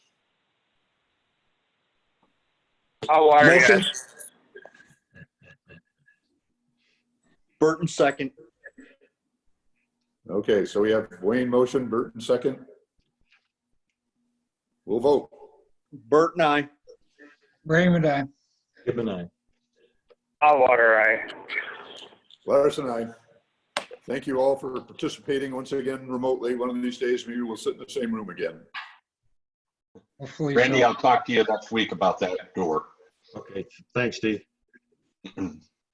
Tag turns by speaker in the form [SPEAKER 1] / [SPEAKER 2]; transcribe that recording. [SPEAKER 1] How are you?
[SPEAKER 2] Motion. Burton, second.
[SPEAKER 3] Okay, so we have Wayne motion, Burton second. We'll vote.
[SPEAKER 2] Burton, aye.
[SPEAKER 4] Raymond, I.
[SPEAKER 5] Gibbon, aye.
[SPEAKER 1] How are I?
[SPEAKER 3] Larson, aye. Thank you all for participating once again remotely. One of these days, maybe we'll sit in the same room again.
[SPEAKER 4] Hopefully,
[SPEAKER 6] Randy,
[SPEAKER 4] so.
[SPEAKER 6] I'll talk to you next week about that door.
[SPEAKER 5] Okay, thanks, Steve.